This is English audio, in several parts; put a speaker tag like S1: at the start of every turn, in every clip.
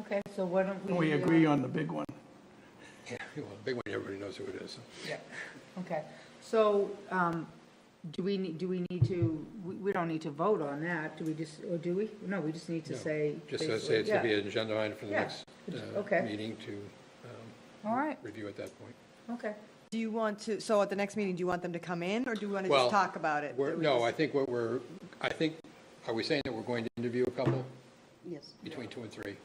S1: Okay, so why don't we?
S2: We
S1: uh,
S2: agree on the big one.
S3: Yeah, well, big one, everybody knows who it is.
S1: Okay, so um, do we, ne- do we need to, we- we don't need to vote on that, do we just, or do we? No, we just need to
S3: No,
S1: say.
S3: Just to
S1: basically-
S3: say it's going to be
S1: yeah.
S3: an agenda item for the
S1: Yeah.
S3: next uh,
S1: Okay.
S3: meeting to um,
S1: All right,
S3: review at that point.
S1: okay.
S4: Do you want to, so at the next meeting, do you want them to come in, or do you want to
S3: Well,
S4: just talk about it?
S3: We're-
S4: That we
S3: No,
S4: just-
S3: I think what we're, I think, are we saying that we're going to interview a couple
S4: Yes.
S3: between two and three?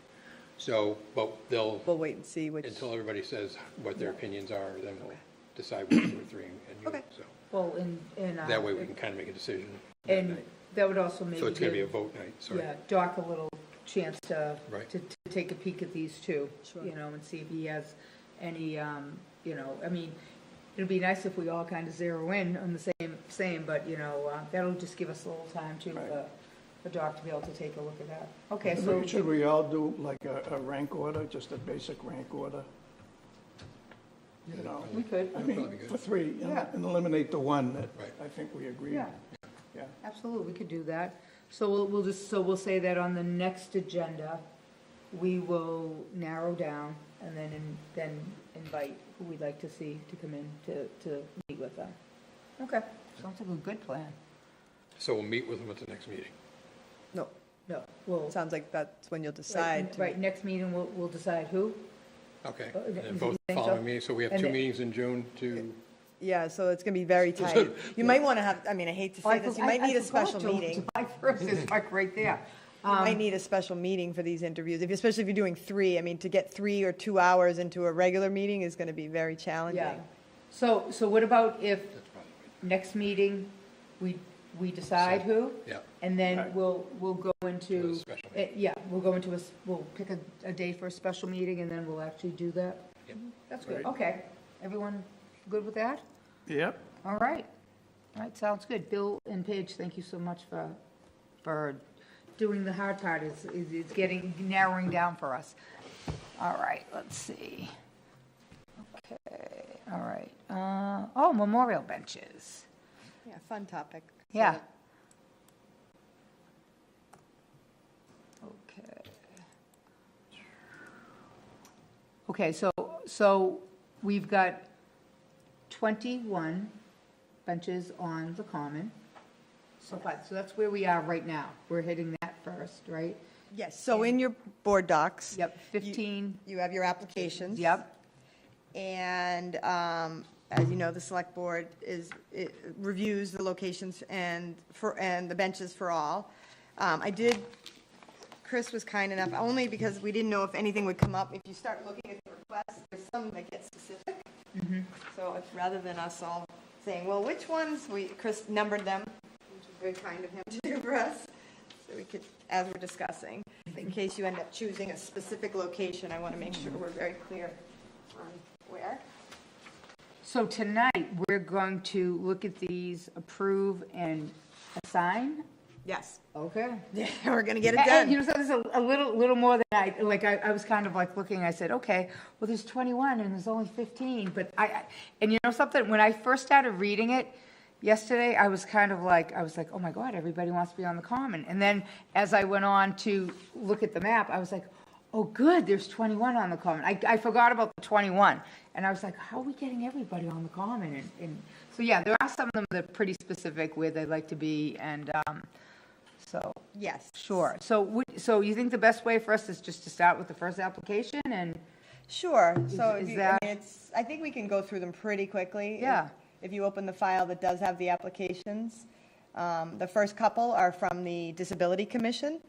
S3: So, but they'll,
S4: We'll wait and see which,
S3: until everybody says what their opinions are, then we'll decide which two or three and you,
S4: Okay.
S3: so.
S1: Well, and, and. uh,
S3: That way we can kind of make a decision. that
S1: And
S3: night.
S1: that would also maybe.
S3: So it's going to be a
S1: give-
S3: vote night, sorry.
S1: Yeah, Doc a little chance to,
S3: Right.
S1: to, to take a peek at these two,
S4: Sure.
S1: you know, and see if he has any, um, you know, I mean, it'd be nice if we all kind of zero in on the same, same, but, you know, uh, that'll just give us a little time to, uh, the Doc to be able to take a look at that. Okay, so,
S2: Should we all do like a, a rank order, just a basic rank order? You know,
S1: we could,
S2: I
S3: That'd
S2: mean,
S3: be good.
S2: for three, and-
S1: Yeah.
S2: and eliminate the one that
S3: Right.
S2: I think we agree
S1: yeah,
S2: on. Yeah,
S1: absolutely, we could do that. So we'll, we'll just, so we'll say that on the next agenda, we will narrow down and then, in- then invite who we'd like to see to come in to, to meet with them. Okay, sounds like a good plan.
S3: So we'll meet with them at the next meeting.
S4: no,
S1: No, we'll.
S4: sounds like that's when you'll decide. to-
S1: Right, next meeting, we'll, we'll decide who.
S3: Okay.
S1: Oh,
S3: And
S1: you
S3: then both
S1: think so?
S3: following meetings, so we have
S1: And
S3: two
S1: it-
S3: meetings in June to,
S4: Yeah, so it's going to be very tight. You might want to have, I mean, I hate to say this, you might
S1: I- I
S4: need a
S1: forgot
S4: special
S1: Ju-
S4: meeting.
S1: July first is like right there. Um,
S4: You might need a special meeting for these interviews, if- especially if you're doing three. I mean, to get three or two hours into a regular meeting is going to be very
S1: Yeah.
S4: challenging.
S1: So, so what about if
S3: that's probably,
S1: next meeting, we, we decide who?
S3: yeah.
S1: And then we'll, we'll go
S3: To a
S1: into,
S3: special
S1: eh, yeah, we'll go into a, s- we'll pick a, a day for a special meeting and then we'll actually do that.
S3: Yep.
S1: That's good,
S2: Right.
S1: okay. Everyone good with that?
S2: yep,
S1: All right. All right, sounds good. Bill and Paige, thank you so much for, for doing the hard part. It's, it's it's getting, narrowing down for us. All right, let's see. Okay, all right. Uh, oh, memorial benches.
S4: Yeah, fun topic.
S1: Yeah. Okay. Okay, so, so we've got 21 benches on the common. So, but, so that's where we are right now. We're hitting that first, right?
S4: Yes, so in your board docs.
S1: Yep,
S4: you-
S1: 15.
S4: You have your applications.
S1: Yep,
S4: And um, as you know, the select board is, it reviews the locations and for, and the benches for all. Um, I did, Chris was kind enough, only because we didn't know if anything would come up. If you start looking at the requests, there's some that get specific. So if- rather than us all saying, well, which ones, we, Chris numbered them, which is very kind of him to do for us. So we could, as we're discussing, in case you end up choosing a specific location, I want to make sure we're very clear on where.
S1: So tonight, we're going to look at these, approve and assign?
S4: Yes,
S1: Okay.
S4: Yeah, we're going to get it
S1: And- and You
S4: done.
S1: know, so there's a, a little, little more than I, like, I, I was kind of like looking, I said, okay, well, there's 21 and there's only 15, but I, I- and you know something, when I first started reading it yesterday, I was kind of like, I was like, oh my God, everybody wants to be on the common. And then as I went on to look at the map, I was like, oh, good, there's 21 on the common. I, I forgot about the 21. And I was like, how are we getting everybody on the common? And, and, so yeah, there are some of them that are pretty specific where they'd like to be and, um, so.
S4: Yes.
S1: Sure, so, would- so you think the best way for us is just to start with the first application and,
S4: Sure, so
S1: Is-
S4: if
S1: is
S4: you, I
S1: that-
S4: mean, it's, I think we can go through them pretty quickly. If-
S1: Yeah.
S4: If you open the file that does have the applications, um, the first couple are from the Disability Commission.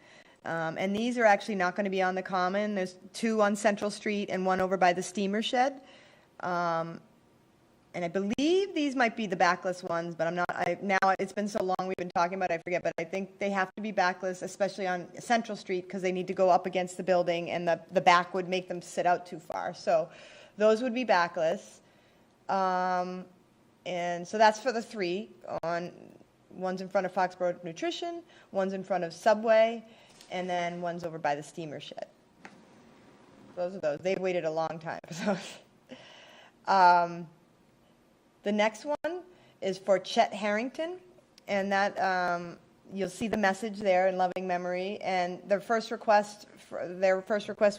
S4: Um, and these are actually not going to be on the common. There's two on Central Street and one over by the steamer shed. Um, and I believe these might be the backless ones, but I'm not, I, now, it's been so long we've been talking about, it, I forget, but I think they have to be backless, especially on Central Street, because they need to go up against the building, and the, the back would make them sit out too far, so those would be backless. Um, and so that's for the three, on, one's in front of Foxborough Nutrition, one's in front of Subway, and then one's over by the steamer shed. Those are those, they've waited a long time, so. Um, the next one is for Chet Harrington, and that, um, you'll see the message there in loving memory. And their first request, for- their first request was